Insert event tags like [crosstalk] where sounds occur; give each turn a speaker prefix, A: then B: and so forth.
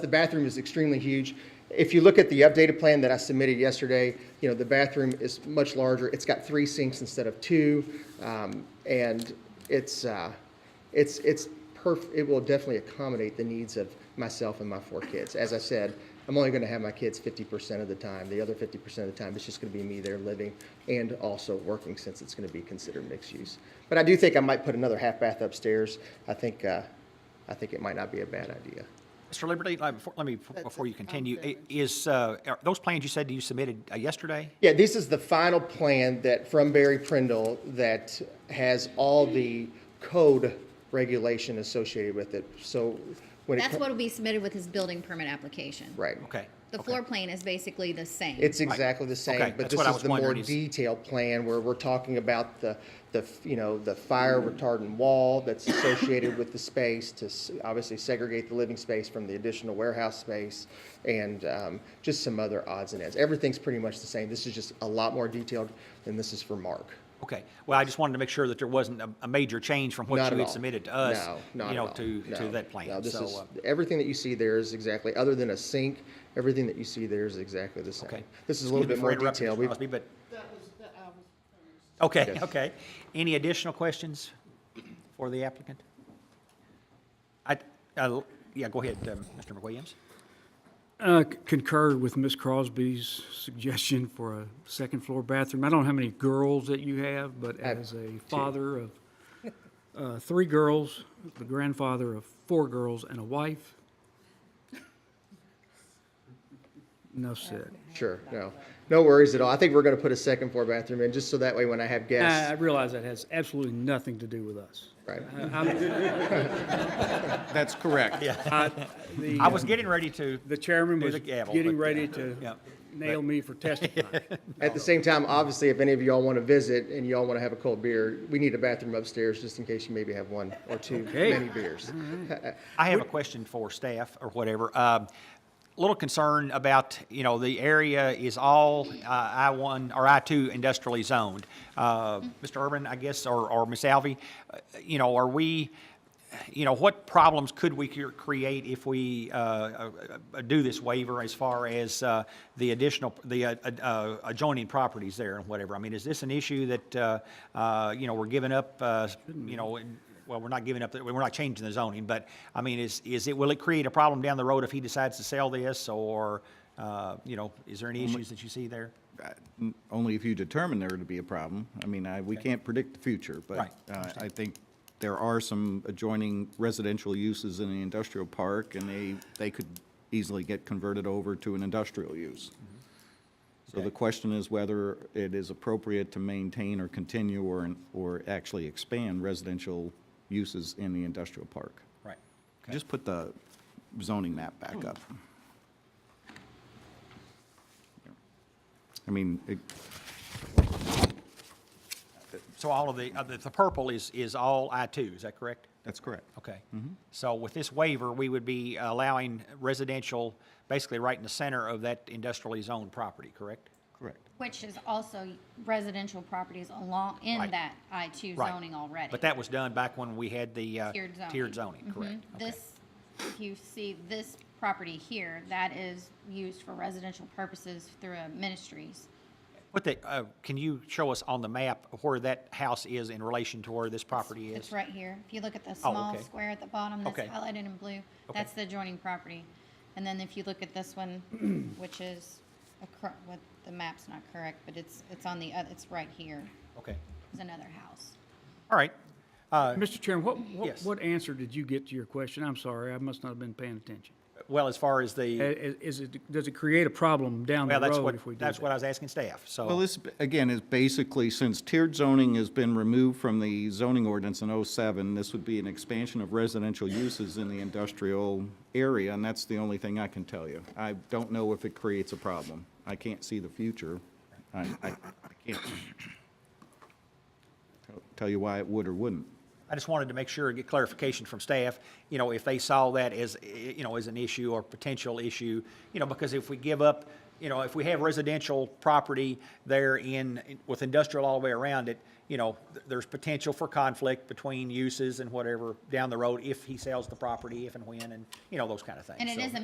A: The bathroom is extremely huge. If you look at the updated plan that I submitted yesterday, you know, the bathroom is much larger. It's got three sinks instead of two. um, And it's, uh, it's, it's perf, it will definitely accommodate the needs of myself and my four kids. As I said, I'm only going to have my kids 50% of the time. The other 50% of the time, it's just going to be me there living and also working since it's going to be considered mixed use. But I do think I might put another half bath upstairs. I think, uh, I think it might not be a bad idea.
B: Mr. Liberty, uh, before- let me, before you continue, i- is, uh, are those plans you said you submitted uh, yesterday?
A: Yeah, this is the final plan that, from Barry Prindle, that has all the code regulation associated with it. So when it,
C: That's
A: co-
C: what will be submitted with his building permit application.
A: right.
B: Okay.
C: The
B: okay.
C: floor plan is basically the same.
A: It's exactly the same,
B: Okay,
A: but
B: that's
A: this
B: what I
A: is
B: was
A: the more
B: wondering is-
A: detailed plan where we're talking about the, the, you know, the fire retardant wall that's associated with the space to s- obviously segregate the living space from the additional warehouse space and um, just some other odds and ends. Everything's pretty much the same. This is just a lot more detailed, and this is for Mark.
B: Okay, well, I just wanted to make sure that there wasn't a, a major change from
A: Not
B: what you
A: at
B: had
A: all.
B: submitted to us.
A: No, not
B: You
A: at
B: know,
A: all.
B: to, to
A: No.
B: that plan.
A: No, this
B: So,
A: is,
B: uh,
A: everything that you see there is exactly, other than a sink, everything that you see there is exactly the same.
B: Okay.
A: This is a little
B: Excuse
A: bit
B: me for
A: more
B: interrupting,
A: detailed.
B: Mr.
A: We've-
B: Crosby, But,
D: That was, that I was finished.
B: okay,
A: Yes.
B: okay. Any additional questions for the applicant? I, uh, yeah, go ahead, um, Mr. McWilliams.
E: Uh, c- Concur with Ms. Crosby's suggestion for a second floor bathroom. I don't know how many girls that you have, but
A: have
E: as a father of uh, three girls, the grandfather of four girls and a wife. Enough said.
A: Sure, no, no worries at all. I think we're gonna put a second floor bathroom in, just so that way when I have
E: I I
A: guests,
E: realize that has absolutely nothing to do with us.
A: right?
E: I-
B: [laughs]
E: I'm-
F: That's correct.
E: the,
B: I was getting ready to,
E: The chairman
B: Do
E: was
B: the gavel,
E: getting
B: but,
E: ready
B: uh, yeah,
E: to
B: but-
E: nail me
B: [laughs]
E: for testifying.
A: At the same time, obviously, if any of y'all wanna visit and y'all wanna have a cold beer, we need a bathroom upstairs, just in case you maybe have one or two
E: Okay.
A: many beers.
B: I have a question for staff or whatever. Um, Little concern about, you know, the area is all uh, I-1 or I-2 industrially zoned. Uh, Mr. Urban, I guess, or, or Ms. Alvey, uh, you know, are we, you know, what problems could we cre- create if we uh, uh, uh, do this waiver as far as uh, the additional, the uh, uh, adjoining properties there and whatever? I mean, is this an issue that, uh, uh, you know, we're giving up, uh, you know, in- well, we're not giving up, the- we're not changing the zoning, but, I mean, is, is it, will it create a problem down the road if he decides to sell this, or, uh, you know, is there any issues that you see there?
F: Only if you determine there to be a problem. I mean, I, we can't predict the future, but
B: Right,
F: uh, I think there are some adjoining residential uses in the industrial park, and they, they could easily get converted over to an industrial use. So the question is whether it is appropriate to maintain or continue or, or actually expand residential uses in the industrial park.
B: Right. Okay.
F: Just put the zoning map back up. I mean, it-
B: So all of the, uh, the the purple is, is all I-2, is that correct?
F: that's correct.
B: Okay. So with this waiver, we would be allowing residential, basically right in the center of that industrially zoned property, correct?
F: Correct.
G: Which is also residential properties along, in
B: Right.
G: that I-2
B: Right.
G: zoning already.
B: But that was done back when we had the uh,
G: Tiered zoning. Mm-hmm.
B: tiered zoning, correct? Okay.
G: This, if you see this property here, that is used for residential purposes through uh, ministries.
B: What the, uh, can you show us on the map where that house is in relation to where this property is?
G: It's right here. If you look at the small
B: Oh, okay.
G: square at the bottom that's
B: Okay.
G: highlighted in blue, that's the adjoining property. And then if you look at this one,
B: [clears throat]
G: which is, acro- what, the map's not correct, but it's, it's on the, oth- it's right here.
B: Okay,
G: It's another house.
B: all right. Uh,
E: Mr. Chairman, what, what,
B: Yes.
E: what answer did you get to your question? I'm sorry, I must not have been paying attention.
B: Well, as far as
E: I-
B: the,
E: i- Is it, does it create a problem down the
B: well, that's what,
E: road if we do
B: that's what
E: that?
B: I was asking staff,
F: Well,
B: so,
F: this, again, is basically, since tiered zoning has been removed from the zoning ordinance in '07, this would be an expansion of residential uses in the industrial area, and that's the only thing I can tell you. I don't know if it creates a problem. I can't see the future. I, I I can't tell- tell you why it would or wouldn't.
B: I just wanted to make sure, and get clarification from staff, you know, if they saw that as, eh, you know, as an issue or potential issue, you know, because if we give up, you know, if we have residential property there in, with industrial all the way around it, you know, th- there's potential for conflict between uses and whatever down the road if he sells the property, if and when, and, you know, those kind of things.
G: And it
B: so-
G: is a